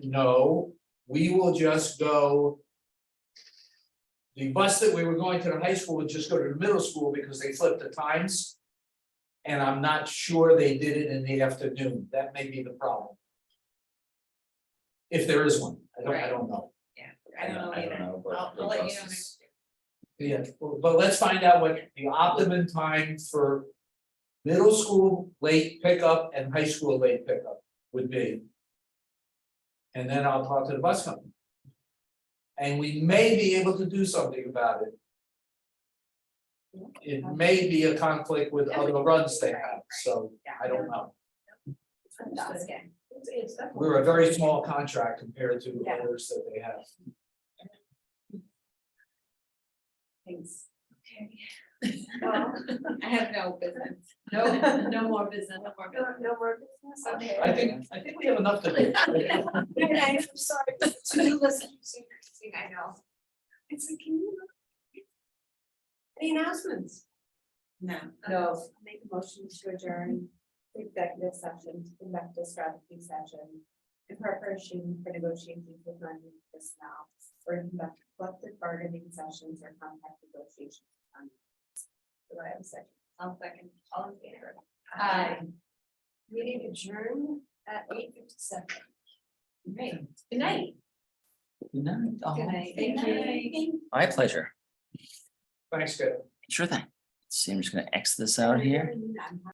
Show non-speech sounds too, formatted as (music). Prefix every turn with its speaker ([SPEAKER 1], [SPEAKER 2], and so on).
[SPEAKER 1] No, we will just go. The bus that we were going to the high school would just go to the middle school because they flipped the times. And I'm not sure they did it in the afternoon, that may be the problem. If there is one, I don't, I don't know,
[SPEAKER 2] Yeah, I don't know
[SPEAKER 3] I don't
[SPEAKER 2] either.
[SPEAKER 3] know, but
[SPEAKER 2] I'll-
[SPEAKER 3] the
[SPEAKER 2] I'll let you
[SPEAKER 3] bus
[SPEAKER 2] know
[SPEAKER 3] is-
[SPEAKER 2] next
[SPEAKER 1] yeah, but let's find out what the optimum time for. Middle school late pickup and high school late pickup would be. And then I'll talk to the bus company. And we may be able to do something about it. It may be a conflict with other runs they have, so I don't know.
[SPEAKER 2] Understood. It's- it's definitely-
[SPEAKER 1] We're a very small contract compared to others that they have.
[SPEAKER 2] Thanks. (laughs) Okay. Well, I have no business. No, no more business. No, no more business. Okay.
[SPEAKER 1] I think, I think we have enough to
[SPEAKER 2] (laughs)
[SPEAKER 1] do.
[SPEAKER 2] And I am sorry, to do list keeps increasing, I know. It's like, can you? Any announcements? No. No. Make a motion to adjourn the executive session to conduct a strategy session. In preparation for negotiations with non-union personnel, or to conduct collective bargaining sessions or contract negotiations. with non-unions. Do I have a second? I'll second. All in favor? Aye. Meeting adjourned at eight fifty-seven. Great. Good night.
[SPEAKER 3] Good night, all.
[SPEAKER 2] Good night. Thank you.
[SPEAKER 3] Oh, My pleasure.
[SPEAKER 1] Thanks, guys.
[SPEAKER 3] Sure thing. See, I'm just gonna X this out here.